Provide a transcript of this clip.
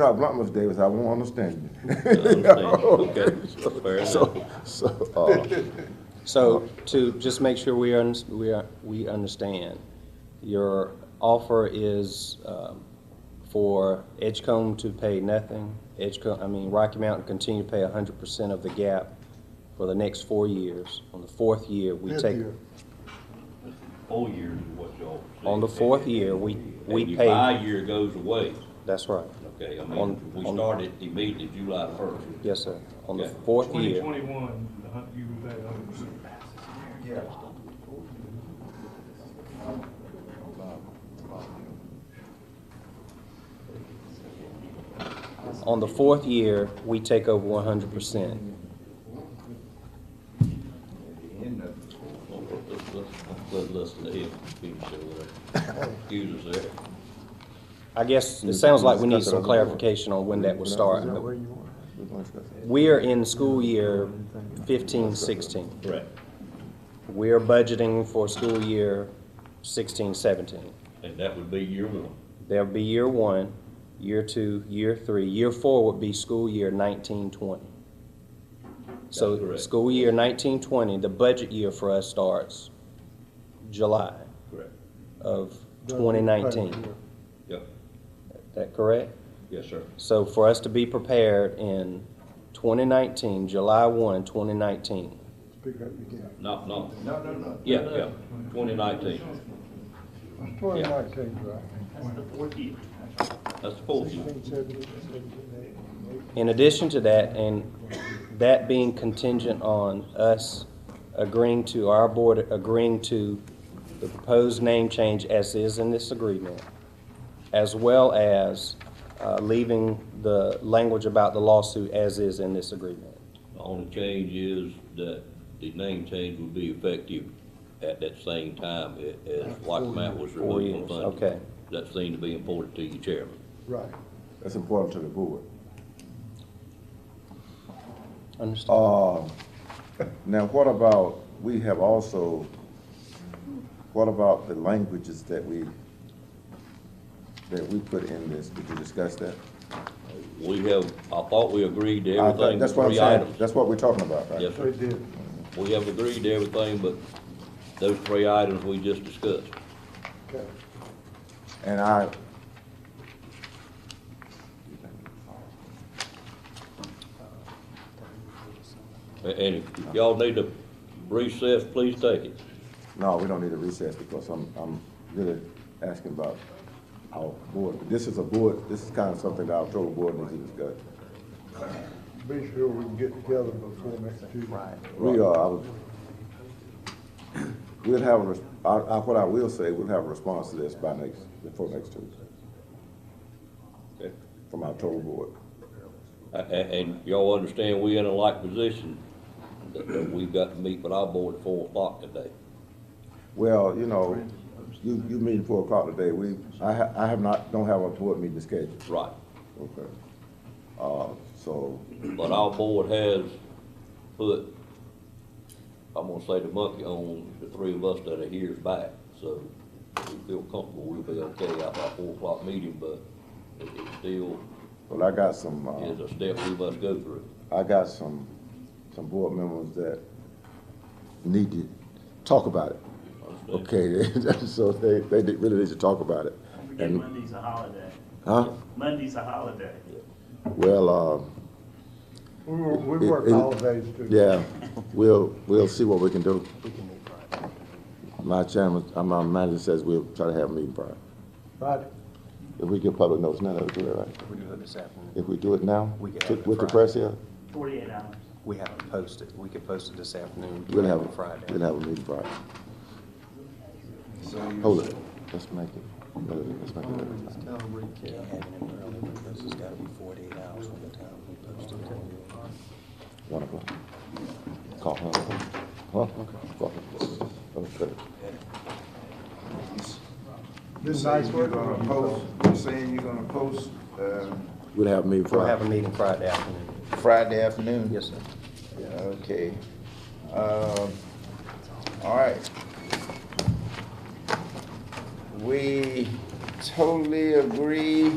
How Bluntmouth Davis, I won't understand you. I understand. Okay, fair enough. So, so, uh, So to just make sure we, un- we, are- we understand, your offer is um, for Edgecombe to pay nothing, Edgecombe, I mean Rocky Mountain continue to pay hundred percent of the gap for the next four years. On the fourth year, we Fifth take, year. Whole year is what y'all. said. on the fourth year, we, we And pay. Your five-year goes away, That's right, okay, I On- mean, we on- started immediately July first. yes, sir. On the Okay. fourth Twenty year, twenty-one, you would pay hundred percent. on the fourth year, we take over one hundred percent. Let's, let's, let's listen to him, he can say whatever, uh, excuse us there. I guess it sounds like we need Discuss it some on the board. clarification on when that would Is start. that where you want? We're gonna discuss it. We are in school year fifteen, sixteen. Right. We are budgeting for school year sixteen, seventeen. And that would be year one. There'll be year one, year two, year three. Year four would be school year nineteen, twenty. That's So correct. school year nineteen, twenty, the budget year for us starts July Correct. of twenty nineteen. Is Yep, that correct? yes, sir. So for us to be prepared in 2019, July 1, 2019, Speak up again. Not, not, No, no, no. yeah, yeah, twenty nineteen, Twenty nineteen, right. that's the fourth year. Sixteen, seventeen, seventeen, eighteen, eighteen. in addition to that, and that being contingent on us agreeing to, our board agreeing to the proposed name change as is in this agreement, as well as uh, leaving the language about the lawsuit as is in this agreement. The only change is that the name change will be effective at that same time a- as Rocky Mountain was Four removed from years, funding. okay. That seemed to be important to you, Chairman. Right. That's important to the board. Understand? Uh, now, what about, we have also, what about the languages that we, that we put in this? Did you discuss that? We have, I thought we agreed to I everything, think That's what I'm three saying, items. that's what we're talking about, right? Yes, They sir. did. We have agreed to everything but those three items we just discussed. Okay. And I, A- And if y'all need to recess, please take it. no, we don't need a recess because I'm, I'm really asking about our board. This is a board, this is kind of something that our total board needs to discuss. Be sure we can get together before next Tuesday. Right. We are, I would- we'll have, a res- I, I, what I will say, we'll have a response to this by next, before next Tuesday. Okay. From our total board. A- a- And y'all understand we in a like position that- that we've got to meet with our board at four o'clock today. Well, you know, you, you meeting four o'clock today, we, I ha, I have not, don't have a board meeting scheduled, Right. okay? Uh, so, But our board has put, I'm gonna say the monkey on the three of us that are here's back, so we feel comfortable we'll be okay after our four o'clock meeting, but it, it still well, I got some, is uh, a step we must go through. I got some, some board members that need to talk about it, Understand? okay? So they, they did- really need to talk about it, Don't forget Monday's a holiday. huh? Monday's a holiday. Well, uh, We, were- we It- work it- holidays too. Yeah, we'll, we'll see what we can do. My chairman, uh, my manager says we'll try to have a meeting prior. Right. If we give public notice now, that'll do it, right? We do it this afternoon. If we do it now, We can have with it with the Friday. press here, Forty-eight hours. We have to post it. We could post it this afternoon. we'll have, it Friday. a- we'll have a meeting prior. Hold it, let's make it, let's make it. relevant. Can't have it in uh, early because it's gotta be forty-eight hours from the time we post it. One o'clock. Call him. Huh? Call him. Okay. You're This saying nice you're work. gonna post, you're saying you're gonna post, um, We'll have a meeting We'll have a Friday. meeting Friday afternoon. Friday afternoon? Yes, sir. Yeah, Okay. Um, all right. We totally agree